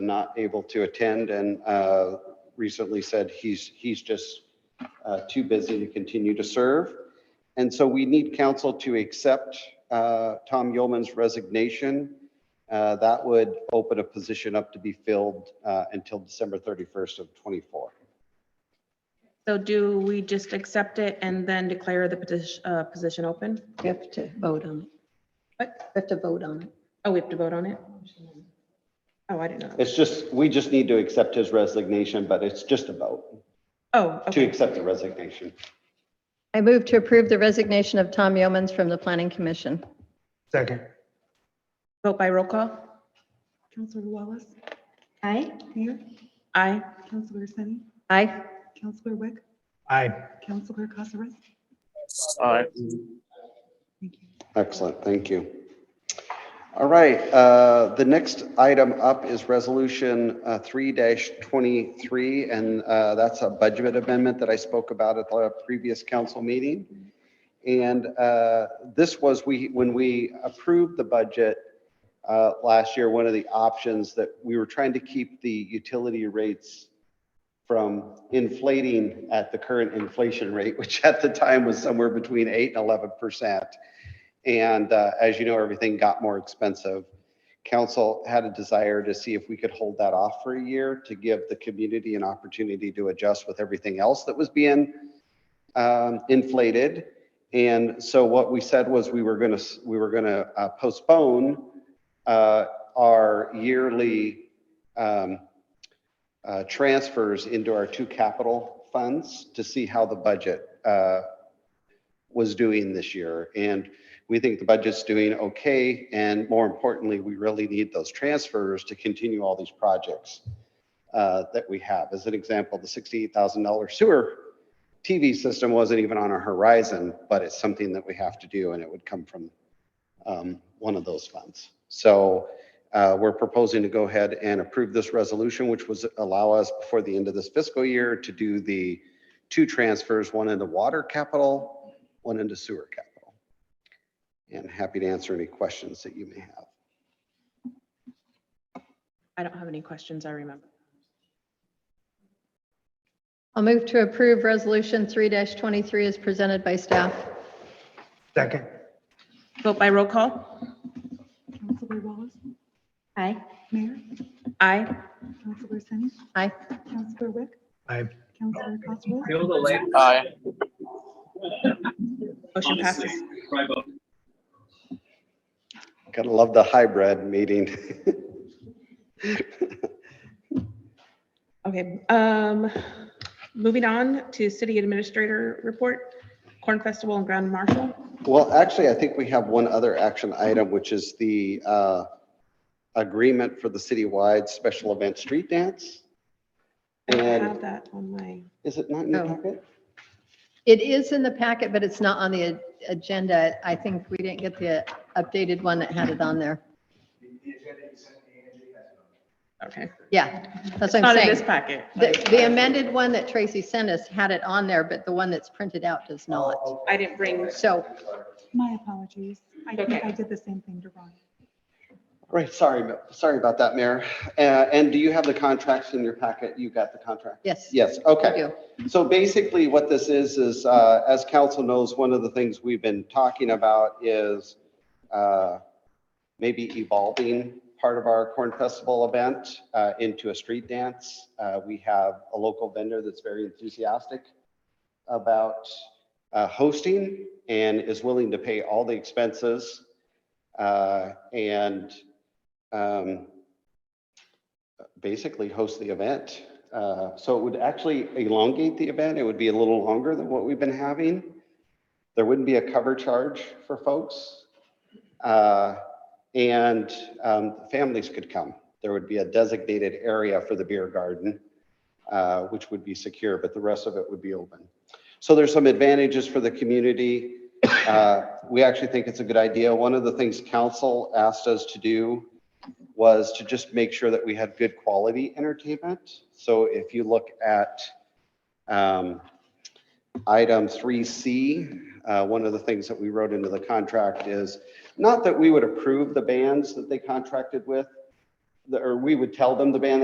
not able to attend and uh, recently said he's, he's just uh, too busy to continue to serve. And so we need council to accept uh, Tom Yeoman's resignation. Uh, That would open a position up to be filled uh, until December 31st of '24. So do we just accept it and then declare the position, uh, position open? We have to vote on it. What? We have to vote on it. Oh, we have to vote on it? Oh, I didn't know. that. It's just, we just need to accept his resignation, but it's just a vote Oh, to okay. accept the resignation. I move to approve the resignation of Tom Yeomans from the Planning Commission. Second. Vote by roll call. Counselor Wallace? Aye. Mayor, Aye. Councilor Sunny, Aye. Councilor Wick, Aye. Councilor Casares. Aye. Thank you. Excellent, thank you. All right, uh, the next item up is Resolution uh, 3-23, and uh, that's a budget amendment that I spoke about at the previous council meeting. And uh, this was, we, when we approved the budget uh, last year, one of the options that we were trying to keep the utility rates from inflating at the current inflation rate, which at the time was somewhere between 8 and 11%. And uh, as you know, everything got more expensive. Council had a desire to see if we could hold that off for a year to give the community an opportunity to adjust with everything else that was being um, inflated. And so what we said was we were going to, we were going to postpone uh, our yearly um, uh, transfers into our two capital funds to see how the budget uh, was doing this year. And we think the budget's doing okay, and more importantly, we really need those transfers to continue all these projects uh, that we have. As an example, the $68,000 sewer TV system wasn't even on our horizon, but it's something that we have to do, and it would come from um, one of those funds. So uh, we're proposing to go ahead and approve this resolution, which was allow us before the end of this fiscal year to do the two transfers, one into water capital, one into sewer capital and happy to answer any questions that you may have. I don't have any questions, I remember. I'll move to approve Resolution 3-23 as presented by staff. Second. Vote by roll call. Councilor Wallace, Aye. Mayor, Aye. Councilor Sunny, Aye. Councilor Wick, Aye. Councilor Casares. Feel the land. Aye. Motion Honestly, passes. try both. Gotta love the hybrid meeting. Okay, um, moving on to city administrator report, Corn Festival and Grand Marshal. Well, actually, I think we have one other action item, which is the uh, agreement for the citywide special event street dance. I don't And- have that on my, Is it not in the Oh. packet? It is in the packet, but it's not on the a- agenda. I think we didn't get the updated one that had it on there. okay. Yeah, that's what Not I'm in this saying. packet. The the amended one that Tracy sent us had it on there, but the one that's printed out does not. I didn't bring, So My apologies. I think Okay. I did the same thing to Ron. Right, sorry, sorry about that, Mayor. Uh, And do you have the contracts in your packet? You got the contract? Yes. Yes, we okay. do. So basically what this is, is uh, as council knows, one of the things we've been talking about is uh, maybe evolving part of our Corn Festival event uh, into a street dance. Uh, We have a local vendor that's very enthusiastic about uh, hosting and is willing to pay all the expenses. uh, And um, basically host the event. Uh, So it would actually elongate the event. It would be a little longer than what we've been having. There wouldn't be a cover charge for folks. Uh, And um, families could come. There would be a designated area for the beer garden, uh, which would be secure, but the rest of it would be open. So there's some advantages for the community. Uh, We actually think it's a good idea. One of the things council asked us to do was to just make sure that we had good quality entertainment. So if you look at um, item 3C, uh, one of the things that we wrote into the contract is, not that we would approve the bands that they contracted with, the- or we would tell them the ban